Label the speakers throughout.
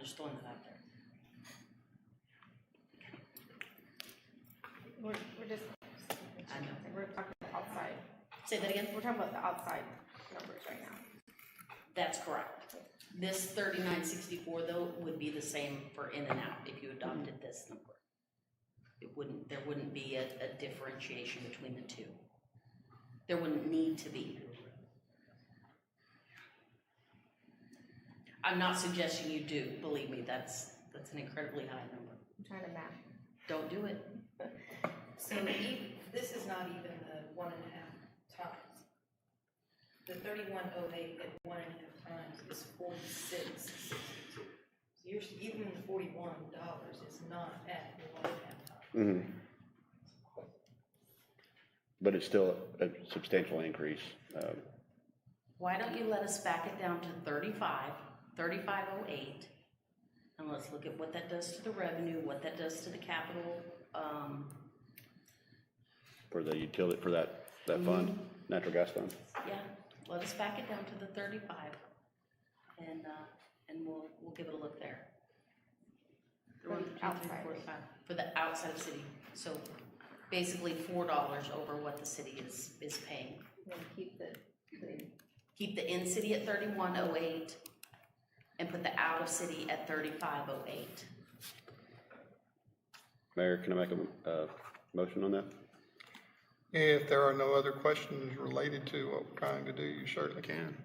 Speaker 1: just throwing that out there.
Speaker 2: We're, we're just,
Speaker 1: I know.
Speaker 2: we're talking about outside,
Speaker 1: Say that again?
Speaker 2: we're talking about the outside numbers right now.
Speaker 1: That's correct. This thirty-nine sixty-four though would be the same for in and out if you adopted this number. It wouldn't, there wouldn't be a, a differentiation between the two. There wouldn't need to be. I'm not suggesting you do, believe me, that's, that's an incredibly high number.
Speaker 2: I'm trying to map.
Speaker 1: Don't do it.
Speaker 3: So e- this is not even the one and a half times. The thirty-one oh eight at one and a half times is forty-six sixty-two. So you're, s- even the forty-one dollars is not at the one and a half times.
Speaker 4: Mhm. But it's still a substantial increase. um,
Speaker 1: Why don't you let us back it down to thirty-five, thirty-five oh eight? And let's look at what that does to the revenue, what that does to the capital, um,
Speaker 4: For the utility, for that, that fund, natural gas fund.
Speaker 1: yeah, let us back it down to the thirty-five. And, uh, and we'll, we'll give it a look there.
Speaker 2: For
Speaker 1: One,
Speaker 2: the
Speaker 1: two, three,
Speaker 2: outside.
Speaker 1: four, five, For the outside city, so basically four dollars over what the city is, is paying.
Speaker 2: We'll keep the, the,
Speaker 1: Keep the in-city at thirty-one oh eight and put the out-of-city at thirty-five oh eight.
Speaker 4: Mayor, can I make a, uh motion on that?
Speaker 5: If there are no other questions related to what we're trying to do, you certainly can.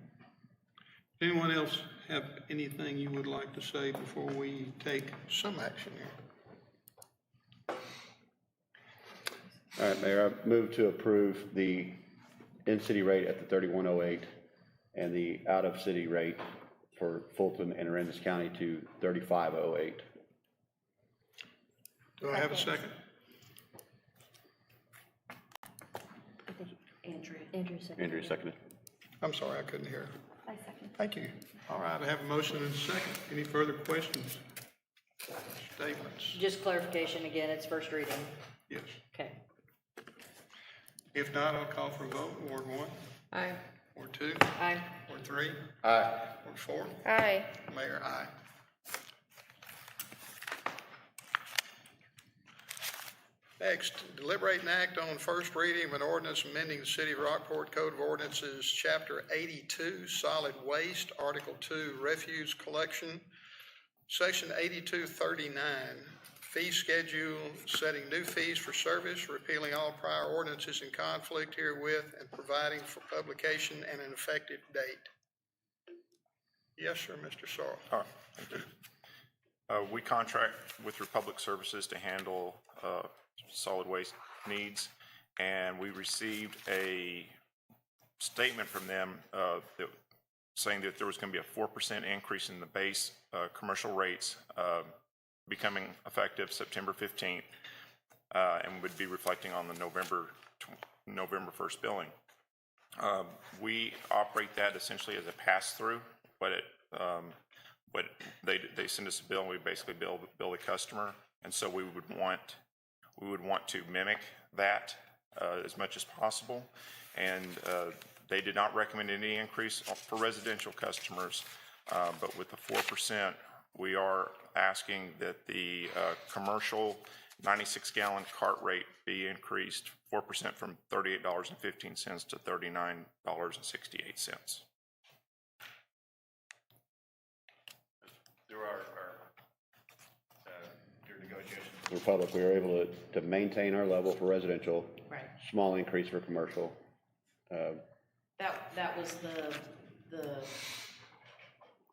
Speaker 5: Anyone else have anything you would like to say before we take some action here?
Speaker 4: All right, Mayor, I move to approve the in-city rate at the thirty-one oh eight and the out-of-city rate for Fulton and Aransas County to thirty-five oh eight.
Speaker 5: Do I have a second?
Speaker 1: Andrea,
Speaker 6: Andrew second.
Speaker 4: Andrew seconded.
Speaker 5: I'm sorry, I couldn't hear.
Speaker 2: I second.
Speaker 5: Thank you. All right, I have a motion and a second. Any further questions? Statements?
Speaker 6: Just clarification again, it's first reading.
Speaker 5: Yes.
Speaker 6: Okay.
Speaker 5: If not, I'll call for a vote. Ward one,
Speaker 6: Aye.
Speaker 5: Ward two,
Speaker 6: Aye.
Speaker 5: Ward three,
Speaker 4: Aye.
Speaker 5: Ward four.
Speaker 2: Aye.
Speaker 5: Mayor, aye. Next, deliberate and act on first reading of an ordinance amending the City of Rockport Code of Ordinances, Chapter 82, Solid Waste, Article 2, Refuse Collection, Section 8239, Fee Schedule, Setting New Fees for Service, Repealing All Prior Ordinances in Conflict Herewith, and Providing for Publication and an Effective Date. Yes, sir, Mr. Sorrell.
Speaker 7: All right, thank you. Uh, We contract with Republic Services to handle uh, solid waste needs, and we received a statement from them uh, that- saying that there was going to be a 4% increase in the base uh, commercial rates uh, becoming effective September 15th, uh, and would be reflecting on the November, tw- November 1st billing. Um, We operate that essentially as a pass-through, but it, um, but they, they send us a bill, and we basically bill, bill the customer. And so we would want, we would want to mimic that uh, as much as possible. And uh, they did not recommend any increase for residential customers, uh, but with the 4%, we are asking that the uh, commercial 96-gallon cart rate be increased 4% from $38.15 to $39.68.
Speaker 8: through our, our, uh, through negotiations
Speaker 4: Republic, we were able to, to maintain our level for residential,
Speaker 1: right.
Speaker 4: small increase for commercial. Uh,
Speaker 1: That, that was the, the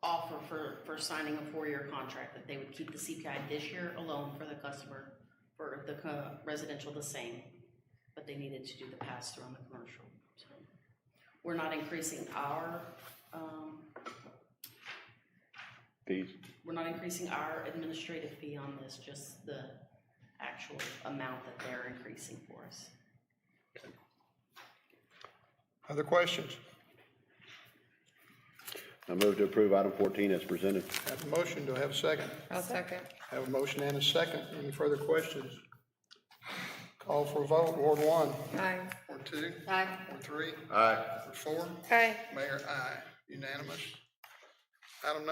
Speaker 1: offer for, for signing a four-year contract, that they would keep the CPI this year alone for the customer, for the co- residential the same, but they needed to do the pass-through on the commercial. So We're not increasing our, um,
Speaker 4: Fees,
Speaker 1: we're not increasing our administrative fee on this, just the actual amount that they're increasing for us.
Speaker 5: Other questions?
Speaker 4: I move to approve item fourteen as presented.
Speaker 5: Have a motion, do I have a second?
Speaker 6: I'll second.
Speaker 5: Have a motion and a second, any further questions? Call for a vote, Ward one.
Speaker 6: Aye.
Speaker 5: Ward two.
Speaker 6: Aye.
Speaker 5: Ward three.
Speaker 4: Aye.
Speaker 5: Ward four.
Speaker 6: Aye.
Speaker 5: Mayor, aye, unanimous. Item number